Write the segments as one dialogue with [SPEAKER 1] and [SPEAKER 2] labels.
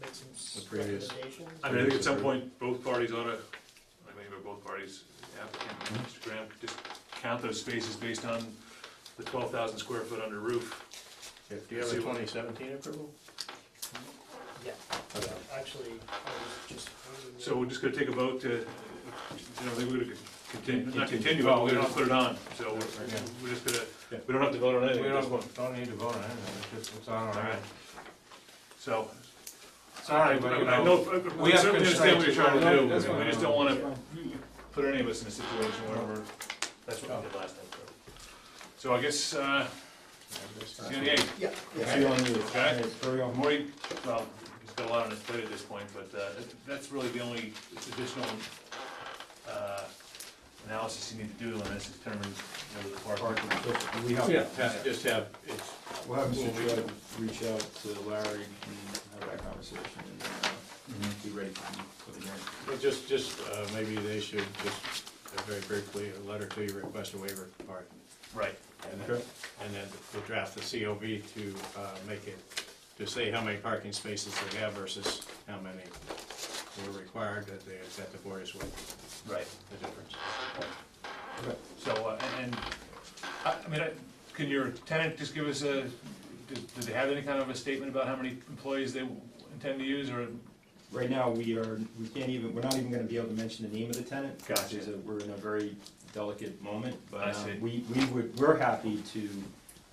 [SPEAKER 1] The previous-
[SPEAKER 2] recommendations?
[SPEAKER 3] I mean, I think at some point, both parties ought to, I mean, but both parties, applicant and Mr. Graham, just count those spaces based on the twelve thousand square foot under roof.
[SPEAKER 1] Do you have a twenty seventeen approval?
[SPEAKER 2] Yeah,
[SPEAKER 1] Okay.
[SPEAKER 2] actually, I was just. holding
[SPEAKER 3] So
[SPEAKER 2] it.
[SPEAKER 3] we're just gonna take a vote to, you know, we're gonna continue, not continue, but we're gonna put it on, so we're, we're just gonna, we don't have to vote on anything
[SPEAKER 4] We
[SPEAKER 3] at this point.
[SPEAKER 4] don't, don't need to vote on it, it's just, it's on our end.
[SPEAKER 3] So,
[SPEAKER 4] Sorry, but you
[SPEAKER 3] I
[SPEAKER 4] know,
[SPEAKER 3] know, we
[SPEAKER 4] we have
[SPEAKER 3] certainly understand what you're trying to
[SPEAKER 4] constraints.
[SPEAKER 3] do, we just don't wanna put any of us in a situation where we're, that's what we did last time. So I guess, uh, see you on the eighth.
[SPEAKER 2] Yeah, yeah.
[SPEAKER 1] See you on the-
[SPEAKER 3] Okay.
[SPEAKER 4] hurry up.
[SPEAKER 3] Morty, well, he's got a lot on his plate at this point, but uh, that's really the only additional uh, analysis you need to do on this, determine whether the park.
[SPEAKER 1] We
[SPEAKER 4] Yeah.
[SPEAKER 1] have, ha- just have, it's,
[SPEAKER 5] We'll have
[SPEAKER 1] Well,
[SPEAKER 5] Mr.
[SPEAKER 1] we
[SPEAKER 5] Troy reach out to Larry and have that conversation and then uh,
[SPEAKER 3] Mm-hmm.
[SPEAKER 5] be ready for the hearing.
[SPEAKER 1] well, just, just, uh, maybe they should just, uh, very briefly, a letter to you, request a waiver of parking.
[SPEAKER 3] Right,
[SPEAKER 1] And then, and then we'll draft the COV to, uh, make it, to say how many parking spaces they have versus how many were required that they, that the board is with,
[SPEAKER 3] right.
[SPEAKER 1] the difference.
[SPEAKER 3] So, uh, and- and, I I mean, I- can your tenant just give us a, did did they have any kind of a statement about how many employees they intend to use, or?
[SPEAKER 5] Right now, we are, we can't even, we're not even gonna be able to mention the name of the tenant.
[SPEAKER 3] Gotcha.
[SPEAKER 5] because, uh, We're in a very delicate moment,
[SPEAKER 3] I
[SPEAKER 5] but um,
[SPEAKER 3] see.
[SPEAKER 5] we, we would, we're happy to,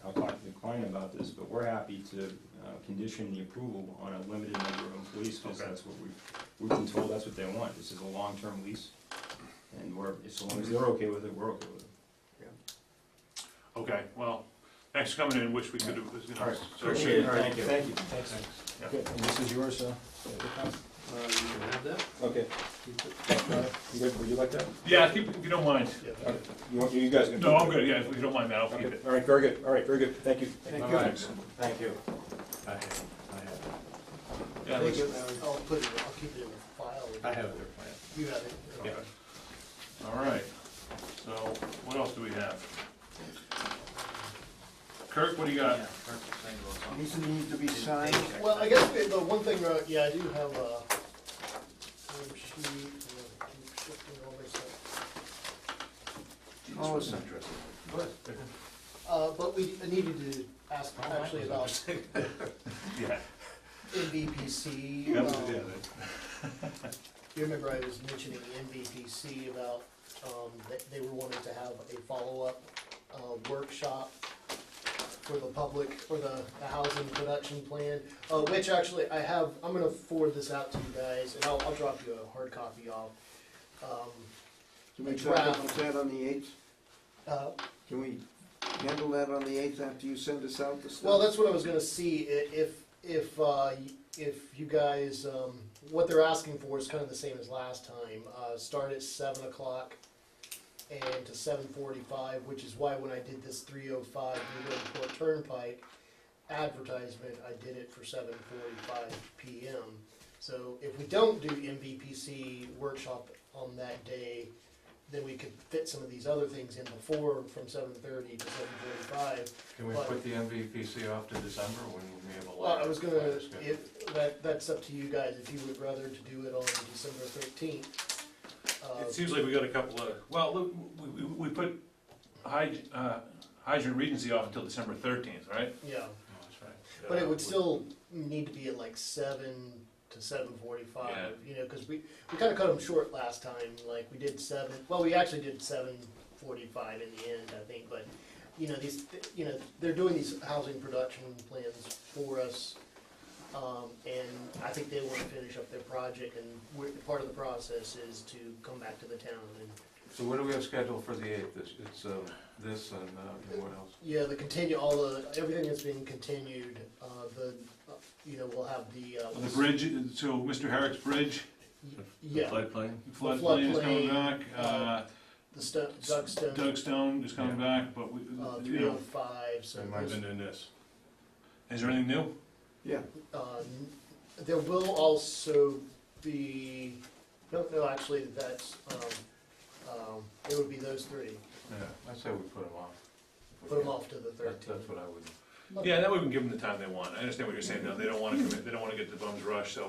[SPEAKER 5] I'll talk to the client about this, but we're happy to uh, condition the approval on a limited number of employees, because
[SPEAKER 3] Okay.
[SPEAKER 5] that's what we, we've been told that's what they want. This is a long-term lease, and we're, as long as they're okay with it, we're okay with it.
[SPEAKER 3] Okay, well, thanks for coming in, wish we could have, you know.
[SPEAKER 5] Alright,
[SPEAKER 3] so-
[SPEAKER 5] appreciate it.
[SPEAKER 3] Alright,
[SPEAKER 5] Thank you. Thank you.
[SPEAKER 3] Yeah.
[SPEAKER 5] Okay, and this is yours, so.
[SPEAKER 2] Uh, you can have that.
[SPEAKER 5] Okay. Uh, You good, would you like that?
[SPEAKER 3] Yeah, keep- if you don't mind.
[SPEAKER 2] Yeah.
[SPEAKER 5] Okay. You want, you guys can.
[SPEAKER 3] No, I'm good, yeah, if you don't mind that, I'll keep
[SPEAKER 5] Okay,
[SPEAKER 3] it.
[SPEAKER 5] all right, very good, all right, very good, thank you.
[SPEAKER 2] Thank
[SPEAKER 4] you.
[SPEAKER 5] Thank you.
[SPEAKER 1] I have, I have,
[SPEAKER 3] Yeah,
[SPEAKER 2] I'll
[SPEAKER 3] let's-
[SPEAKER 2] put it, I'll keep it in the file.
[SPEAKER 1] I have their plan.
[SPEAKER 2] You have it.
[SPEAKER 1] Yeah.
[SPEAKER 3] All right, so what else do we have? Kirk, what do you got?
[SPEAKER 6] These need to be signed.
[SPEAKER 2] Well, I guess the, the one thing, uh, yeah, I do have a name sheet, and I'll keep shifting over, so.
[SPEAKER 6] Oh, it's not
[SPEAKER 2] Uh, but we needed to ask actually about
[SPEAKER 3] Yeah.
[SPEAKER 2] MVPC.
[SPEAKER 3] Yeah,
[SPEAKER 2] um,
[SPEAKER 3] yeah,
[SPEAKER 2] You remember I was mentioning MVPC about, um, that they were wanting to have a follow-up, uh, workshop for the public, for the, the housing production plan, uh, which actually I have, I'm gonna forward this out to you guys, and I'll, I'll drop you a hard copy off. Um,
[SPEAKER 6] Can we talk about that on the eighth?
[SPEAKER 2] uh,
[SPEAKER 6] Can we handle that on the eighth after you send us out the stuff?
[SPEAKER 2] Well, that's what I was gonna see, i- if, if, uh, y- if you guys, um, what they're asking for is kind of the same as last time. Uh, start at seven o'clock and to seven forty-five, which is why when I did this three oh five New Bridgeport Turnpike advertisement, I did it for seven forty-five PM. So if we don't do MVPC workshop on that day, then we could fit some of these other things in before from seven thirty to seven forty-five.
[SPEAKER 4] Can we put the MVPC off to December when we have a
[SPEAKER 2] Well,
[SPEAKER 4] lot?
[SPEAKER 2] I was gonna, if, that, that's up to you guys, if you would rather to do it on December thirteenth. um,
[SPEAKER 3] It seems like we got a couple of, well, look, we, we, we put hyd- uh, Hydrant Regency off until December thirteenth, right? Uh,
[SPEAKER 2] Yeah, but it would still need to be at like seven to seven forty-five, you know, cause we, we kinda cut them short last time, like, we did seven, well, we actually did seven forty-five in the end, I think, but, you know, these, you know, they're doing these housing production plans for us, um, and I think they wanna finish up their project, and we're, part of the process is to come back to the town and
[SPEAKER 4] So what do we have scheduled for the eighth? It's, it's, um, this and, uh, and what else?
[SPEAKER 2] Yeah, the continue, all the, everything that's being continued, uh, the, uh, you know, we'll have the, uh.
[SPEAKER 3] The bridge, so Mr. Herrick's bridge,
[SPEAKER 2] y- Yeah,
[SPEAKER 4] Floodplain?
[SPEAKER 3] floodplain is
[SPEAKER 2] floodplain,
[SPEAKER 3] coming back, uh,
[SPEAKER 2] the stu- duck stem,
[SPEAKER 3] Doug Stone is coming back, but we,
[SPEAKER 2] uh,
[SPEAKER 3] you
[SPEAKER 2] three oh
[SPEAKER 3] know,
[SPEAKER 2] five, so,
[SPEAKER 1] They might have
[SPEAKER 2] there's,
[SPEAKER 1] been in this.
[SPEAKER 3] is there anything new?
[SPEAKER 6] Yeah,
[SPEAKER 2] uh, n- there will also be, no, no, actually, that's, um, um, it would be those three.
[SPEAKER 4] Yeah, I say we put them off.
[SPEAKER 2] Put them off to the
[SPEAKER 4] That-
[SPEAKER 2] thirteenth.
[SPEAKER 4] That's what I would.
[SPEAKER 3] Yeah, that way we can give them the time they want. I understand what you're saying, though. They don't wanna commit, they don't wanna get the bums rushed, so